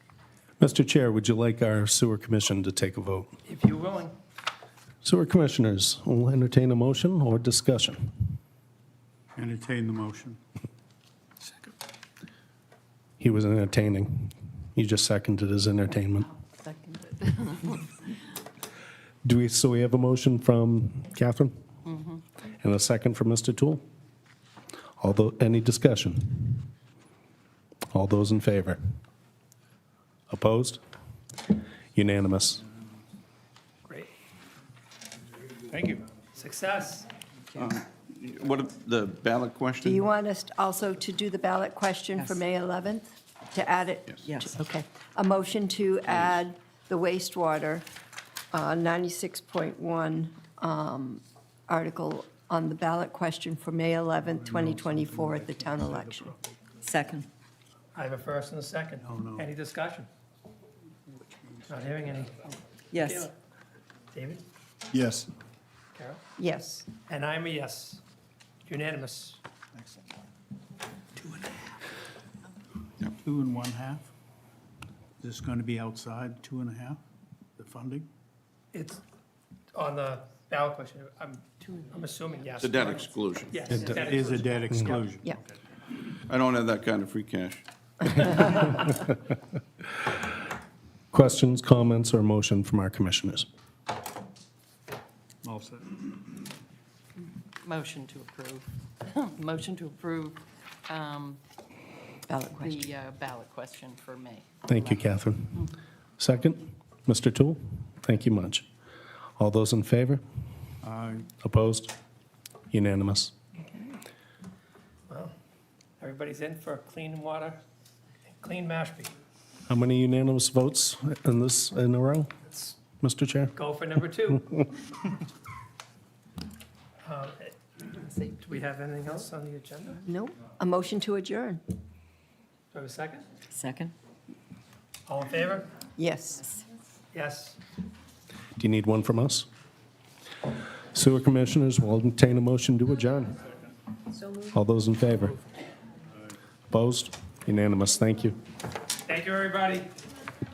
Mr. Chair, would you like our sewer commission to take a vote? If you're willing. Sewer commissioners, will entertain a motion or discussion. Entertain the motion. He was entertaining. You just seconded his entertainment. Seconded. Do we, so we have a motion from Catherine? Mm-hmm. And a second from Mr. Tool? Although, any discussion? All those in favor? Opposed? Unanimous. Great. Thank you. Success. What, if the ballot Do question? you want us to- also to do the ballot question for Yes. May 11th? To add it? Yes. Okay. A motion to add the wastewater, uh, 96.1 um, article on the ballot question for May 11th, 2024 at the town election. Second. I have a first and a second. Oh, Any discussion? Not hearing any. Yes. David, Yes. Carol? Yes. And I'm a yes. Unanimous. Two and one half? Is this going to be outside, two and a half, the funding? It's on the ballot question. I'm, I'm assuming yes. The debt exclusion. Yes. It is a debt exclusion. Yeah. I don't have that kind of free cash. Questions, comments, or motion from our commissioners? All set. Motion to approve. Motion to approve um, Ballot question. the uh, ballot question for May. Thank you, Catherine. Second, Mr. Tool? Thank you much. All those in favor? Uh, Opposed? Unanimous. Everybody's in for clean water, and clean Mashpee. How many unanimous votes in this, in a row, Let's Mr. Chair? go for number two. Um, Do we have anything else on the agenda? No? A motion to adjourn? Do I have a second? Second. All in favor? Yes. Yes. Do you need one from us? Sewer Commissioners will entertain a motion to adjourn. All those in favor? Opposed? Unanimous. Thank you. Thank you, everybody.